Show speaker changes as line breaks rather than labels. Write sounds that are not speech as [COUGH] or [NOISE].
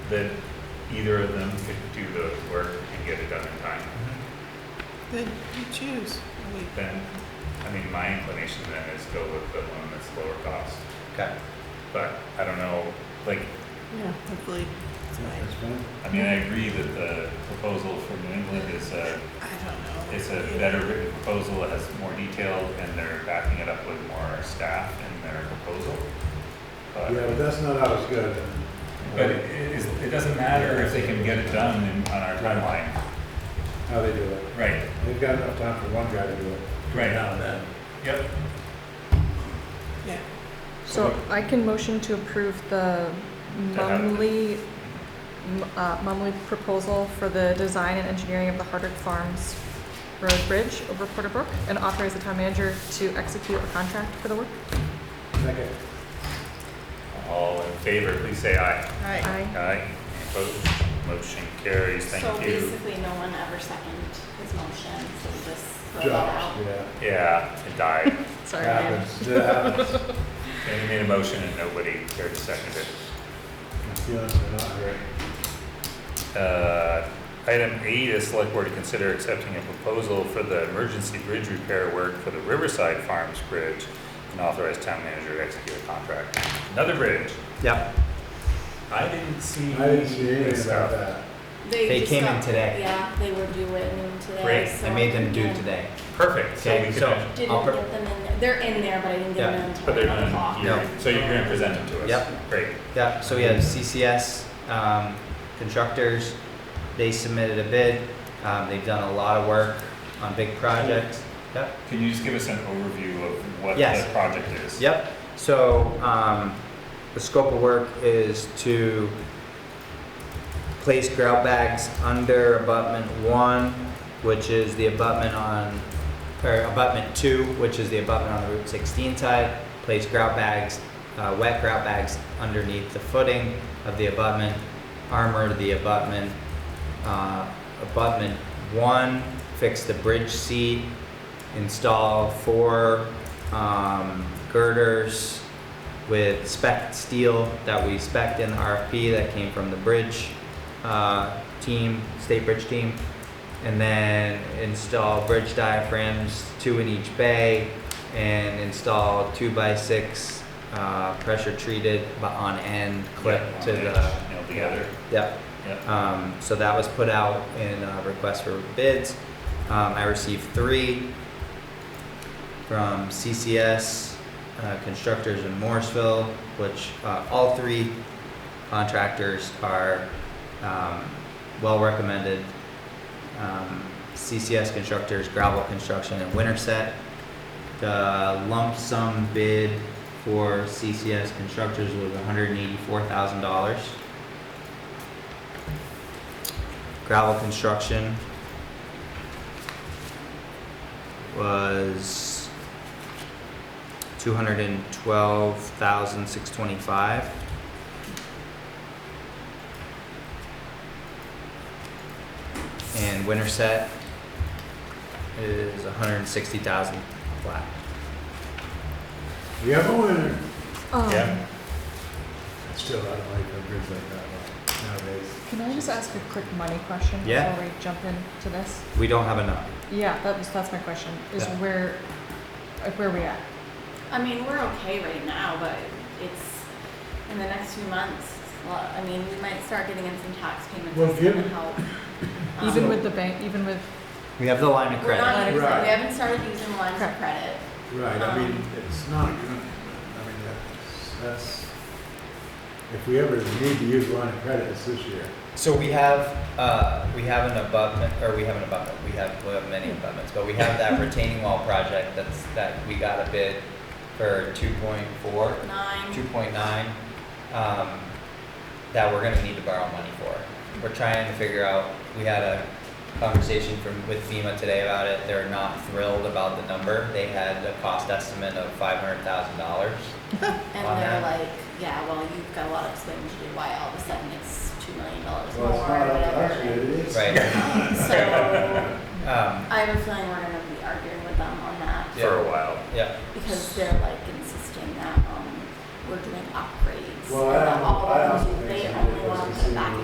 that either of them could do the work and get it done in time.
Then you choose. I mean,
Then, I mean, my inclination then is go with the one that's lower cost,
Okay.
but I don't know, like,
yeah, hopefully it's mine.
That's fine.
I mean, I agree that the proposal for New England is a,
I don't know.
it's a better written proposal, it has more detail, and they're backing it up with more staff in their proposal. But-
Yeah, but that's not always good.
But it, it is- it doesn't matter if they can get it done in, on our timeline.
How they do it.
Right,
They've got enough time for one guy to do it.
right.
Now then.
Yep.
Yeah.
So I can motion to approve the
To have it.
Mumley, m- uh, Mumley proposal for the design and engineering of the Hardwick Farms Road Bridge over Porter Brook and authorize the town manager to execute a contract for the work.
Second.
All in favor, please say aye.
All right.
Aye.
Aye. Opposed? Motion carries.
So
Thank you.
basically, no one ever seconded his motion, so we just throw that out.
Jobs, yeah.
Yeah, it died. [LAUGHS]
Sorry, Ryan.
Happens, it
[LAUGHS]
happens.
And you made a motion and nobody cared to second it.
My feelings are not great.
Uh, Item eight is select board to consider accepting a proposal for the emergency bridge repair work for the Riverside Farms Bridge and authorize town manager to execute a contract. Another bridge.
Yep.
I didn't see.
I didn't see anything
this
about
stuff.
that.
They
just
came in
got-
today.
Yeah, they were due at noon today.
Great,
so
I made them do
yeah.
today.
Perfect. So we
Okay,
could.
so I'll
Didn't
pre-
get them in there. They're in there, but I didn't get
Yeah.
them until.
But they're
nine
not,
o'clock.
in here.
No.
so you're gonna present them to us?
Yep.
Great,
Yep, so we had CCS, um, constructors, they submitted a bid, um, they've done a lot of work on big projects. Yep,
can you just give us an overview of what the
Yes.
project is?
yep, so, um, the scope of work is to place grout bags under abutment one, which is the abutment on, or abutment two, which is the abutment on the Route sixteen side, place grout bags, uh, wet grout bags underneath the footing of the abutment, armor the abutment, uh, abutment one, fix the bridge seat, install four, um, girders with spec steel that we spec'd in the RFP that came from the bridge, uh, team, state bridge team. And then install bridge diaphragms, two in each bay, and install two by six, uh, pressure treated but on end clip
Yeah,
to
on edge,
the.
Nailed together,
Yep,
yep.
um, so that was put out in a request for bids. Um, I received three from CCS uh, Constructors in Morrisville, which uh, all three contractors are um, well recommended. Um, CCS Constructors, Gravel Construction, and Winterset. The lump sum bid for CCS Constructors was $184,000. Gravel construction was two hundred and twelve thousand six twenty-five. And winter set is a hundred and sixty thousand flat.
We have a winner.
Um,
Yeah.
I Still, I don't like a bridge like that one nowadays.
Can I just ask a quick money question?
Yeah.
Before we jump into this?
We don't have enough.
Yeah, that was, that's my question, is
Yeah.
where, like, where are we at?
I mean, we're okay right now, but it's, in the next few months, well, I mean, we might start getting in some tax payments.
Well,
that's
if you-
gonna help. Um,
Even with the bank, even with,
We have the line of
We're
credit.
not, using- we
Right.
haven't started using lines of
Correct.
credit.
Right, I mean,
Um,
it's not good, I mean, that's, that's, if we ever need to use line of credit, it's this year.
So we have, uh, we have an abutment, or we have an abutment, we have, we have many abutments, but we have that retaining wall project that's, that we got a bid for two point four,
Nine.
two point nine, um, that we're gonna need to borrow money for. We're trying to figure out, we had a conversation from, with FEMA today about it, they're not thrilled about the number. They had a cost estimate of five hundred thousand dollars.
And
on
they're
that.
like, yeah, well, you've got a lot of explaining to do why all of a sudden it's two million dollars more
Well,
or
it's not up to us yet,
whatever.
it is.
Right,
[LAUGHS] So
um,
I have a feeling we're gonna be arguing with them on that
Yeah.
For a while.
yeah,
because they're like insisting that, um, we're doing upgrades.
Well, I
and that
don't-
all of
I
them
don't think
do- They
so,
only
because
want
it's
to put back
in-